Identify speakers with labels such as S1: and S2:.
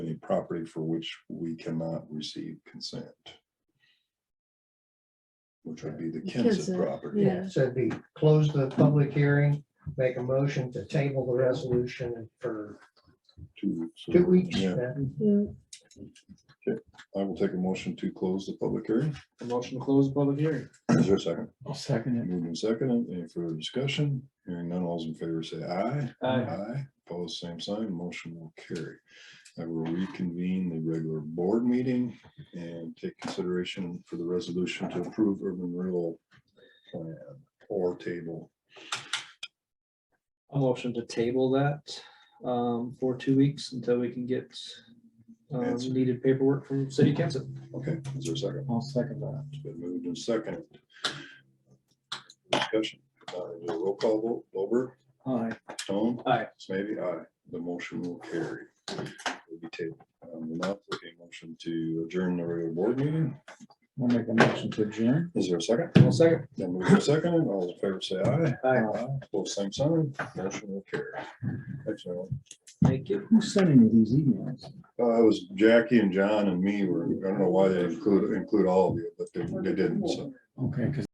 S1: property for which we cannot receive consent. Which would be the Kinsa
S2: Kinsa,
S1: property.
S2: Yeah.
S3: So it'd be close the public hearing, make a motion to table the resolution for
S1: Two- so-
S3: two weeks.
S1: Yeah,
S3: then.
S2: Yeah,
S1: I will take a motion to close the public hearing.
S4: A Motion to close public hearing.
S1: Is there a second?
S4: I'll second
S1: Moved and second, any further discussion? Hearing none, all's in favor, say aye.
S4: Aye.
S1: Aye, opposed, same sign, motion will carry. I will reconvene the regular board meeting and take consideration for the resolution to approve urban renewal plan or table.
S4: A motion to table that um, for two weeks until we can get um,
S1: Answer.
S4: needed paperwork from city council.
S1: Okay, is there a second?
S4: I'll second that.
S1: It's been moved and second. Discussion, uh, do a roll call vote, Over.
S4: Aye.
S1: Stone?
S4: Aye.
S1: Maybe aye. The motion will carry. Will be tabled. Um, we'll now take a motion to adjourn the regular board meeting.
S4: I'll make a motion to adjourn.
S1: Is there a second?
S4: I'll second.
S1: Then move to second. All those in favor say aye.
S4: Aye.
S1: Both same sign. Motion will carry. Thanks, everyone.
S4: Thank you.
S5: Who's sending you these emails?
S1: Uh, it was Jackie and John and me were, I don't know why they include, include all of you, but they, they didn't, so.
S5: Okay, 'cause